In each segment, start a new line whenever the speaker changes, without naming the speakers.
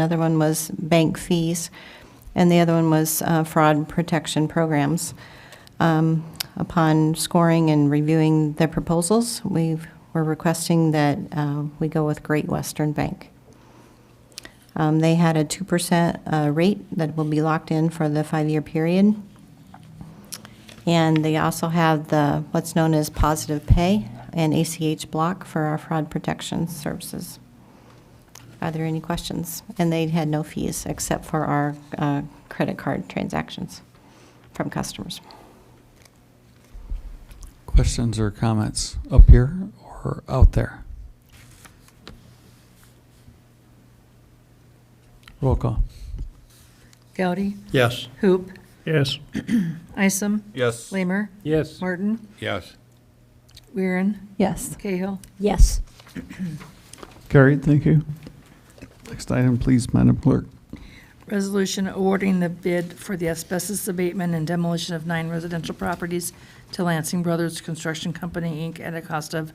Another one was bank fees, and the other one was uh, fraud protection programs. Um, Upon scoring and reviewing the proposals, we were requesting that uh, we go with Great Western Bank. Um, They had a 2% uh, rate that will be locked in for the five-year period. And they also have the, what's known as positive pay and ACH block for our fraud protection services. Are there any questions? And they had no fees except for our uh, credit card transactions from customers.
Questions or comments up here or out there? Roll call.
Goudy,
Yes.
Hoop,
Yes.
Isom,
Yes.
Lamer,
Yes.
Martin,
Yes.
Weirin,
Yes.
Cahill.
Yes.
Carried, thank you. Next item, please, Madam Clerk.
Resolution awarding the bid for the asbestos abatement and demolition of nine residential properties to Lansing Brothers Construction Company, Inc., at a cost of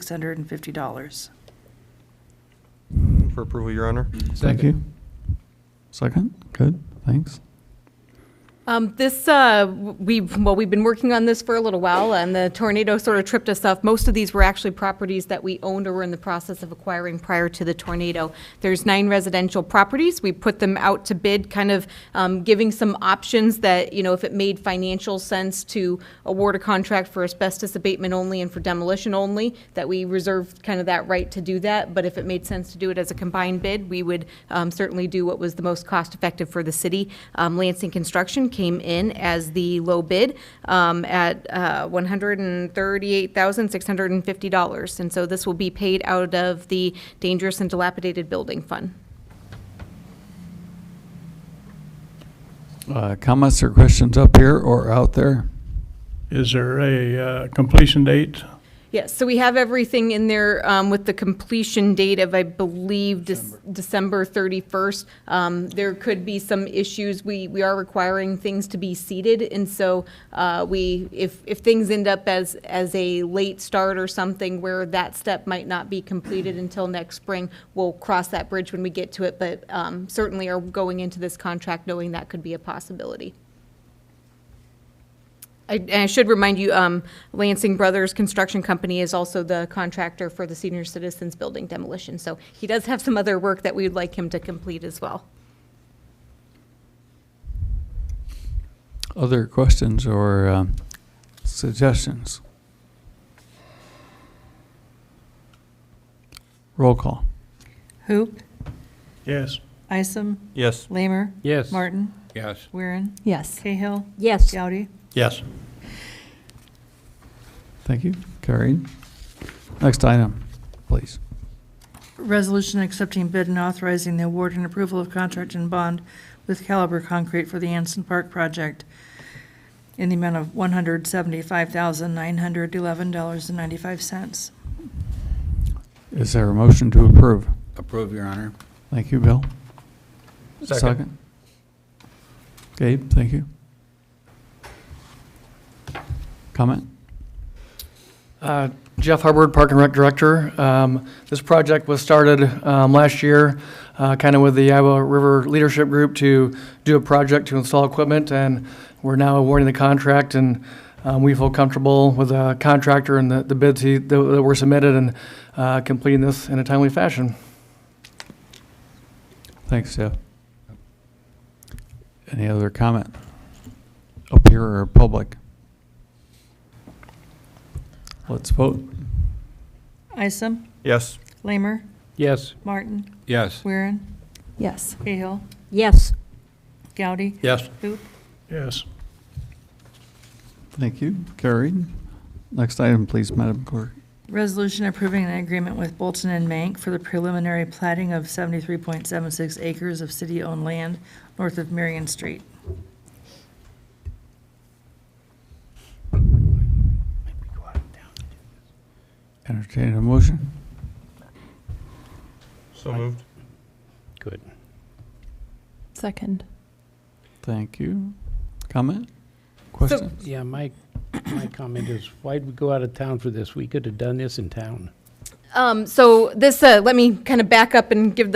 $138,650.
For approval, Your Honor?
Thank you. Second, good, thanks.
Um, this, uh, w- we, well, we've been working on this for a little while, and the tornado sort of tripped us up. Most of these were actually properties that we owned or were in the process of acquiring prior to the tornado. There's nine residential properties. We put them out to bid, kind of um, giving some options that, you know, if it made financial sense to award a contract for asbestos abatement only and for demolition only, that we reserved kind of that right to do that. But if it made sense to do it as a combined bid, we would um, certainly do what was the most cost-effective for the city. Um, Lansing Construction came in as the low bid um, at uh, $138,650. And so this will be paid out of the Dangerous and Dilapidated Building Fund.
Uh, Comments or questions up here or out there?
Is there a uh, completion date?
Yes, so we have everything in there um, with the completion date of, I believe, Dec- December 31st. Um, There could be some issues. We, we are requiring things to be seeded, and so uh, we, if, if things end up as, as a late start or something where that step might not be completed until next spring, we'll cross that bridge when we get to it, but um, certainly are going into this contract knowing that could be a possibility. I- And I should remind you, um, Lansing Brothers Construction Company is also the contractor for the senior citizens building demolition. So he does have some other work that we would like him to complete as well.
Other questions or um, suggestions? Roll call.
Hoop,
Yes.
Isom,
Yes.
Lamer,
Yes.
Martin,
Yes.
Weirin,
Yes.
Cahill,
Yes.
Goudy.
Yes.
Thank you, carried. Next item, please.
Resolution accepting bid and authorizing the award and approval of contract and bond with Caliber Concrete for the Anson Park project in the amount of $175,911.95.
Is there a motion to approve?
Approve, Your Honor.
Thank you, Bill. Gabe, thank you. Comment?
Uh, Jeff Hubbard, Park and Rec Director. Um, This project was started um, last year, kind of with the Iowa River Leadership Group to do a project to install equipment, and we're now awarding the contract, and um, we feel comfortable with the contractor and the the bids he- that that were submitted and uh, completing this in a timely fashion.
Thanks, Jeff. Any other comment? Up here or public? Let's vote.
Isom,
Yes.
Lamer,
Yes.
Martin,
Yes.
Weirin,
Yes.
Cahill,
Yes.
Goudy,
Yes.
Hoop,
Yes.
Thank you, carried. Next item, please, Madam Clerk.
Resolution approving an agreement with Bolton and Mank for the preliminary plating of 73.76 acres of city-owned land north of Marion Street.
Entertain a motion.
So moved.
Good.
Second.
Thank you. Comment? Question?
Yeah, my, my comment is, why'd we go out of town for this? We could have done this in town.
Um, So this, uh, let me kind of back up and give the